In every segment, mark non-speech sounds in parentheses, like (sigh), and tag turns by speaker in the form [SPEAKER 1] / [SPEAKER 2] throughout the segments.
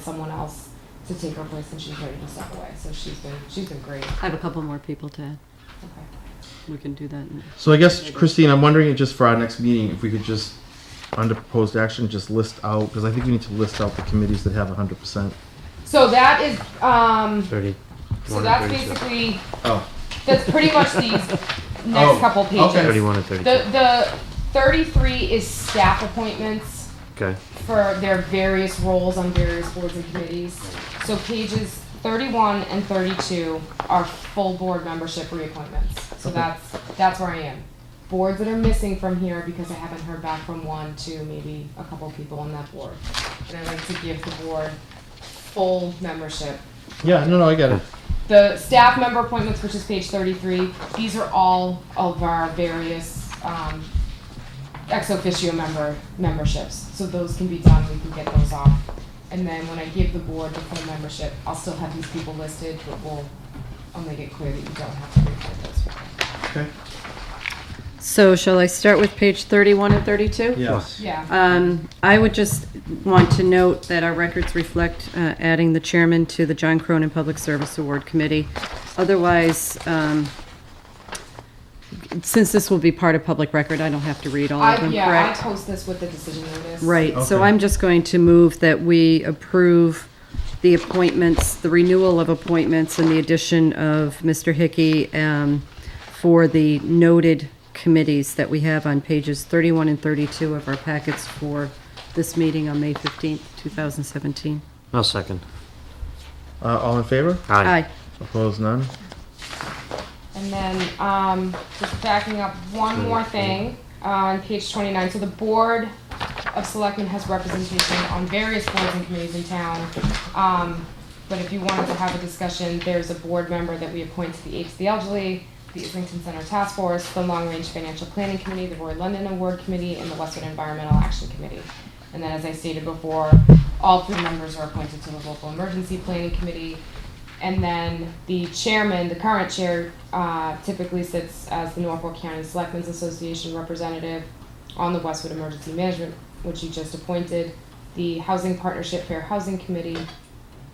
[SPEAKER 1] someone else to take her place and she's ready to step away. So she's been, she's been great.
[SPEAKER 2] I have a couple more people to add.
[SPEAKER 1] Okay.
[SPEAKER 2] We can do that. in-
[SPEAKER 3] So I guess Christine, I'm wondering just for our next meeting, if we could just, under proposed action, just list out, because I think we need to list out the committees that have hundred percent.
[SPEAKER 1] So that is, um,
[SPEAKER 4] 30.
[SPEAKER 1] so that's basically,
[SPEAKER 3] Oh.
[SPEAKER 1] that's pretty much these
[SPEAKER 3] (laughs) Oh,
[SPEAKER 1] next couple pages.
[SPEAKER 3] okay.
[SPEAKER 4] 31 and 32.
[SPEAKER 1] The, the thirty-three is staff appointments
[SPEAKER 4] okay.
[SPEAKER 1] for their various roles on various boards and committees. So pages thirty-one and thirty-two are full board membership reappointments. So that's, that's where I am. Boards that are missing from here because I haven't heard back from one to maybe a couple people on that board. And I'd like to give the board full membership
[SPEAKER 3] Yeah, no, no, I get it.
[SPEAKER 1] the staff member appointments, which is page thirty-three, these are all of our various, um, ex officio member, memberships, so those can be done, we can get those off. And then when I give the board the full membership, I'll still have these people listed, but we'll, I'll make it clear that you don't have to reappoint those people.
[SPEAKER 3] Okay.
[SPEAKER 2] So shall I start with page 31 and 32?
[SPEAKER 3] Yes.
[SPEAKER 1] Yeah,
[SPEAKER 2] Um, I would just want to note that our records reflect uh, adding the chairman to the John Cronin Public Service Award Committee. Otherwise, um, since this will be part of public record, I don't have to read all of
[SPEAKER 1] I,
[SPEAKER 2] them,
[SPEAKER 1] yeah, I
[SPEAKER 2] Oh, correct?
[SPEAKER 1] post this with the decision notice.
[SPEAKER 2] Right, so
[SPEAKER 3] Okay.
[SPEAKER 2] I'm just going to move that we approve the appointments, the renewal of appointments and the addition of Mr. Hickey um, for the noted committees that we have on pages 31 and 32 of our packets for this meeting on May 15th, 2017.
[SPEAKER 4] I'll second.
[SPEAKER 3] Uh, all in favor?
[SPEAKER 2] Aye.
[SPEAKER 3] Opposed, none?
[SPEAKER 1] And then, um, just backing up one more thing, on page twenty-nine, so the Board of Selectmen has representation on various boards and committees in town. Um, but if you wanted to have a discussion, there's a board member that we appoint to the Aid to the Elderly, the Islington Center Task Force, the Long Range Financial Planning Committee, the Roy London Award Committee, and the Western Environmental Action Committee. And then, as I stated before, all three members are appointed to the local emergency planning committee. And then the chairman, the current chair, uh, typically sits as the Norfolk County Selectmen's Association representative on the Westwood Emergency Management, which you just appointed, the Housing Partnership Fair Housing Committee,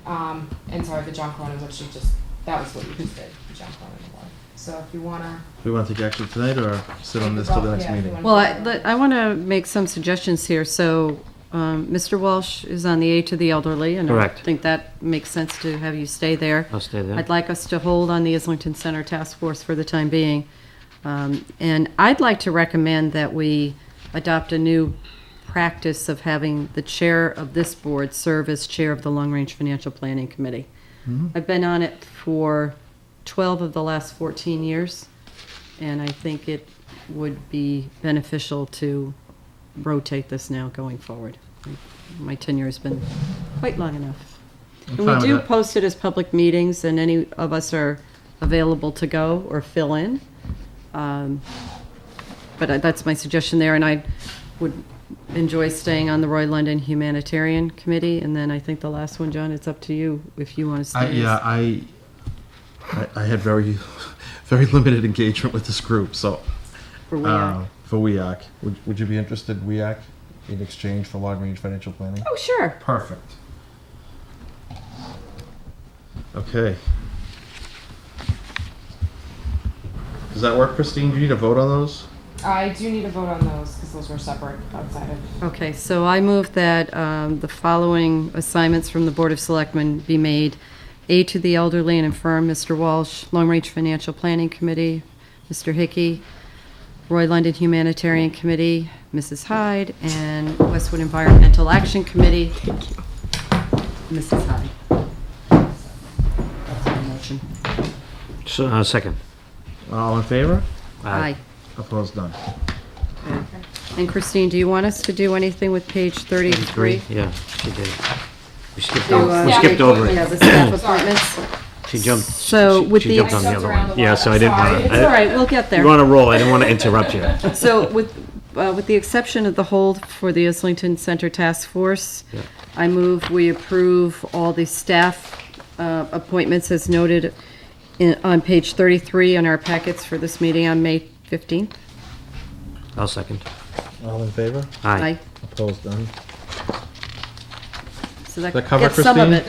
[SPEAKER 1] um, and sorry, the John Cronin, which you just, that was what you just did, the John Cronin Award. So if you wanna.
[SPEAKER 3] We want to take action tonight or sit on this till the next
[SPEAKER 1] Yeah, if you
[SPEAKER 3] meeting?
[SPEAKER 1] wanna-
[SPEAKER 2] Well, I, let- I want to make some suggestions here. So, um, Mr. Walsh is on the Aid to the Elderly, and I
[SPEAKER 4] Correct.
[SPEAKER 2] think that makes sense to have you stay there.
[SPEAKER 4] I'll stay there.
[SPEAKER 2] I'd like us to hold on the Islington Center Task Force for the time being. Um, And I'd like to recommend that we adopt a new practice of having the chair of this board serve as chair of the Long Range Financial Planning Committee. I've been on it for 12 of the last 14 years, and I think it would be beneficial to rotate this now going forward. My tenure has been quite long enough.
[SPEAKER 3] I'm
[SPEAKER 2] And
[SPEAKER 3] fine
[SPEAKER 2] we
[SPEAKER 3] with
[SPEAKER 2] do
[SPEAKER 3] that.
[SPEAKER 2] post it as public meetings, and any of us are available to go or fill in. Um, But I- that's my suggestion there, and I would enjoy staying on the Roy London Humanitarian Committee. And then I think the last one, John, it's up to you if you want to
[SPEAKER 3] I,
[SPEAKER 2] stay.
[SPEAKER 3] yeah, I, I, I had very, (laughs) very limited engagement with this group, so.
[SPEAKER 2] For
[SPEAKER 3] uh,
[SPEAKER 2] WEAC.
[SPEAKER 3] For WEAC. Would, would you be interested, WEAC, in exchange for long-range financial planning?
[SPEAKER 2] Oh, sure.
[SPEAKER 3] Perfect. Okay. Does that work, Christine? Do you need a vote on those?
[SPEAKER 1] I do need a vote on those, cause those were separate outside of.
[SPEAKER 2] Okay, so I move that um, the following assignments from the Board of Selectmen be made. A to the elderly and infirm, Mr. Walsh, Long Range Financial Planning Committee, Mr. Hickey, Roy London Humanitarian Committee, Mrs. Hyde, and Westwood Environmental Action Committee. Mrs. Hyde. That's my motion.
[SPEAKER 4] So, uh, second.
[SPEAKER 3] All in favor?
[SPEAKER 2] Aye.
[SPEAKER 3] Opposed, none.
[SPEAKER 2] And Christine, do you want us to do anything with page 33?
[SPEAKER 4] Yeah, she did. We skipped,
[SPEAKER 2] Do,
[SPEAKER 4] over,
[SPEAKER 2] uh,
[SPEAKER 4] we
[SPEAKER 1] Yeah.
[SPEAKER 4] skipped over
[SPEAKER 2] Yeah,
[SPEAKER 4] it.
[SPEAKER 2] the staff appointments.
[SPEAKER 4] She jumped.
[SPEAKER 2] So,
[SPEAKER 4] she,
[SPEAKER 2] with
[SPEAKER 4] she
[SPEAKER 2] the-
[SPEAKER 4] jumped
[SPEAKER 1] I
[SPEAKER 4] on the
[SPEAKER 1] jumped
[SPEAKER 4] other
[SPEAKER 1] around
[SPEAKER 4] one.
[SPEAKER 1] a
[SPEAKER 4] Yeah,
[SPEAKER 1] lot,
[SPEAKER 4] so I
[SPEAKER 1] I'm
[SPEAKER 4] didn't
[SPEAKER 1] sorry.
[SPEAKER 4] want
[SPEAKER 1] It's
[SPEAKER 2] It's all
[SPEAKER 4] to.
[SPEAKER 2] right, we'll get there.
[SPEAKER 4] You're on a roll. I didn't want to
[SPEAKER 2] (laughs)
[SPEAKER 4] interrupt you.
[SPEAKER 2] So with, uh, with the exception of the hold for the Islington Center Task Force,
[SPEAKER 4] Yeah.
[SPEAKER 2] I move we approve all the staff uh, appointments as noted in- on page 33 in our packets for this meeting on May 15th.
[SPEAKER 4] I'll second.
[SPEAKER 3] All in favor?
[SPEAKER 4] Aye.
[SPEAKER 2] Aye.
[SPEAKER 3] Opposed, none.
[SPEAKER 2] so that
[SPEAKER 3] Does that cover,
[SPEAKER 2] gets some of
[SPEAKER 3] Christine?
[SPEAKER 2] it.